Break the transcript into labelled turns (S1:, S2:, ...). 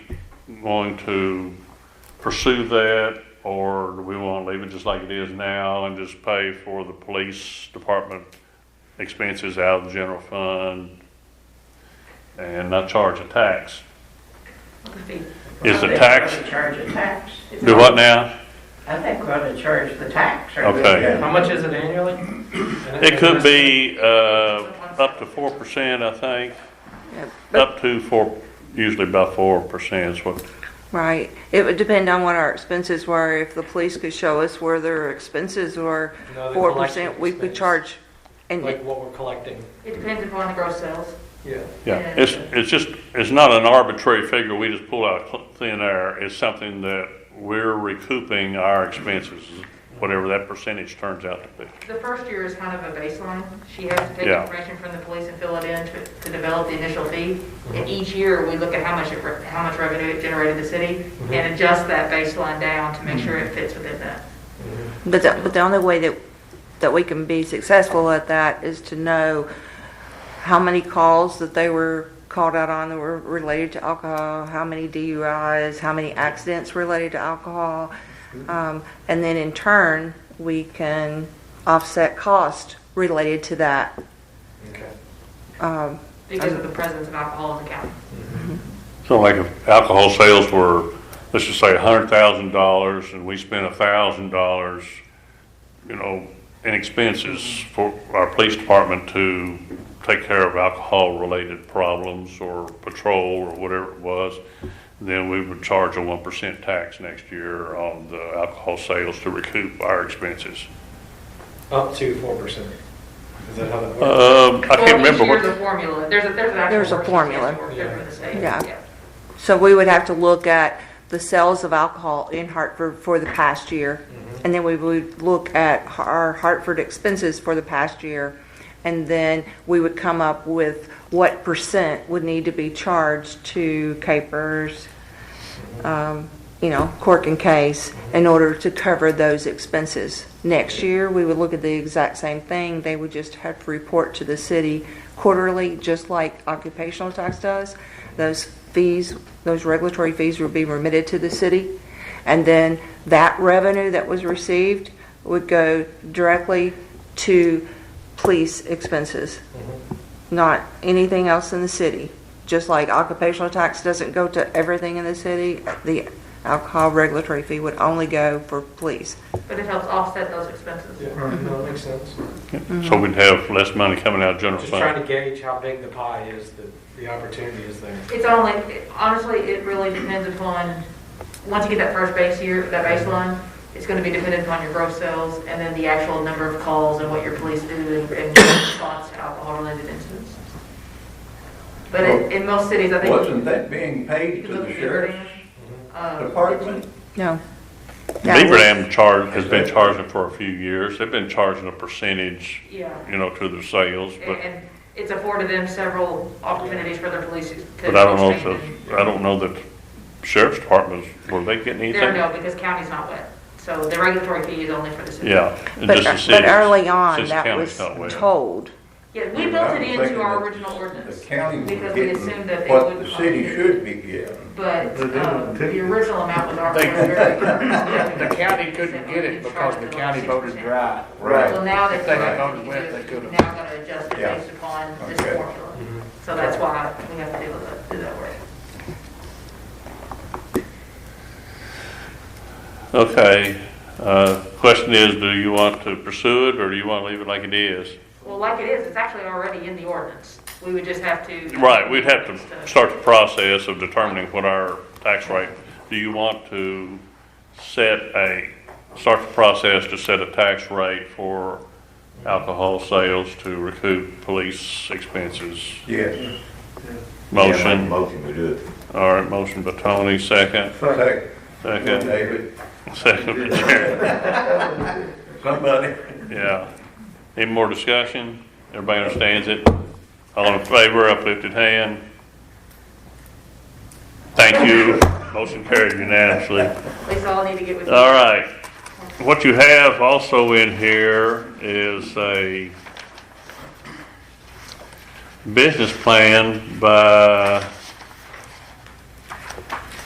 S1: going to pursue that? Or do we want to leave it just like it is now and just pay for the police department expenses out of the general fund? And not charge a tax? Is the tax-
S2: I think we're gonna charge a tax.
S1: Do what now?
S2: I think we're gonna charge the tax. or-
S1: Okay.
S3: How much is it annually?
S1: It could be, uh, up to four percent, I think.
S4: Yeah, but-
S1: Up to four, usually about four percent is what,
S4: Right. It would depend on what our expenses were. If the police could show us where their expenses were,
S3: No, Oh, the
S4: four percent,
S3: collective
S4: we could
S3: expense.
S4: charge.
S3: Like
S4: And
S3: what we're collecting,
S5: It depends upon the gross sales.
S3: yeah.
S1: yeah. It's, it's just, it's not an arbitrary figure we just pull out of thin air. It's something that we're recouping our expenses, whatever that percentage turns out to be.
S5: The first year is kind of a baseline. She has to take
S1: Yeah.
S5: information from the police and fill it in to, to develop the initial fee.
S1: Mm-hmm.
S5: And each year, we look at how much, it re- how much revenue it generated the city
S1: Mm-hmm.
S5: and adjust that baseline down to make sure it fits within that.
S4: But the, but the only way that, that we can be successful at that is to know how many calls that they were called out on that were related to alcohol, how many DUIs, how many accidents related to alcohol. Um, and then in turn, we can offset cost related to that.
S3: Okay.
S4: Um,
S5: Because of the presence of alcohol in the county.
S1: So like if alcohol sales were, let's just say a hundred thousand dollars and we spent a thousand dollars, you know, in expenses for our police department to take care of alcohol related problems or patrol or whatever it was, then we would charge a one percent tax next year on the alcohol sales to recoup our expenses.
S3: Up to four percent. Is that how that works?
S1: Um, I can't remember
S5: Well, each year's
S1: what,
S5: a formula. There's a, there's an actual.
S4: There's a
S5: worksheet
S4: formula.
S5: that we're doing for the state.
S4: Yeah. So we would have to look at the sales of alcohol in Hartford for the past year. And then we would look at our Hartford expenses for the past year. And then we would come up with what percent would need to be charged to capers, um, you know, cork and case, in order to cover those expenses. Next year, we would look at the exact same thing. They would just have to report to the city quarterly, just like occupational tax does. Those fees, those regulatory fees would be remitted to the city. And then that revenue that was received would go directly to police expenses,
S3: Mm-hmm.
S4: not anything else in the city. Just like occupational tax doesn't go to everything in the city, the alcohol regulatory fee would only go for police.
S5: But it helps offset those expenses.
S3: Yeah, no, that makes sense.
S1: so we'd have less money coming out of general
S3: Just trying
S1: fund.
S3: to gauge how big the pie is, that the opportunity is there.
S5: It's only, honestly, it really depends upon, once you get that first base year, that baseline, it's gonna be dependent upon your gross sales and then the actual number of calls and what your police do and and response to alcohol-related incidents. But in, in most cities, I think.
S6: Wasn't that being paid
S5: You
S6: to
S5: look
S6: the
S5: at
S6: sheriff's
S5: Verdun, uh,
S6: department?
S4: No. That was-
S1: Beaverdam charge, has been charging for a few years. They've been charging a percentage
S5: Yeah,
S1: you know, to their sales,
S5: and,
S1: but,
S5: and it's afforded them several opportunities for their police to.
S1: but I don't know if,
S5: change.
S1: the- I don't know that sheriff's departments, were they getting
S5: There,
S1: anything?
S5: no, because county's not wet, so the regulatory fee is only for the city.
S1: Yeah. it
S4: But,
S1: just the
S4: but
S1: cities,
S4: early on,
S1: since the
S4: that
S1: county's
S4: was
S1: not wet.
S4: told.
S5: Yeah, we built it
S6: I'm
S5: into our
S6: thinking
S5: original
S6: The
S5: ordinance,
S6: county was
S5: Because we assumed that
S6: getting
S5: they
S6: what
S5: would
S6: the city
S5: fund it.
S6: should be getting.
S5: but
S7: But they
S5: um,
S7: didn't
S5: the
S7: take it.
S5: original amount was already.
S7: The county couldn't get it because the county voted dry.
S5: So now they're.
S7: If they had
S5: correcting
S7: voted wet, they
S5: it.
S7: could've.
S5: Now gonna adjust it
S6: Yeah.
S5: based upon this
S6: Okay.
S5: formula. So that's why we have to deal with it, do that work.
S1: Okay, uh, question is, do you want to pursue it, or do you want to leave it like it is?
S5: Well, like it is, it's actually already in the ordinance. We would just have to.
S1: Right, we'd have to start the process of determining what our tax rate, do you want to set a, start the process to set a tax rate for alcohol sales to recoup police expenses?
S6: Yes.
S1: Motion,
S6: Motion to do it.
S1: all right, motion by Tony, second,
S6: Second,
S1: second,
S6: David,
S1: second by Jared,
S6: somebody.
S1: yeah. Any more discussion? Everybody understands it? All in favor, uplifted hand? Thank you, motion carried unanimously.
S5: We all need to get with. you.
S1: All right, what you have also in here is a business plan by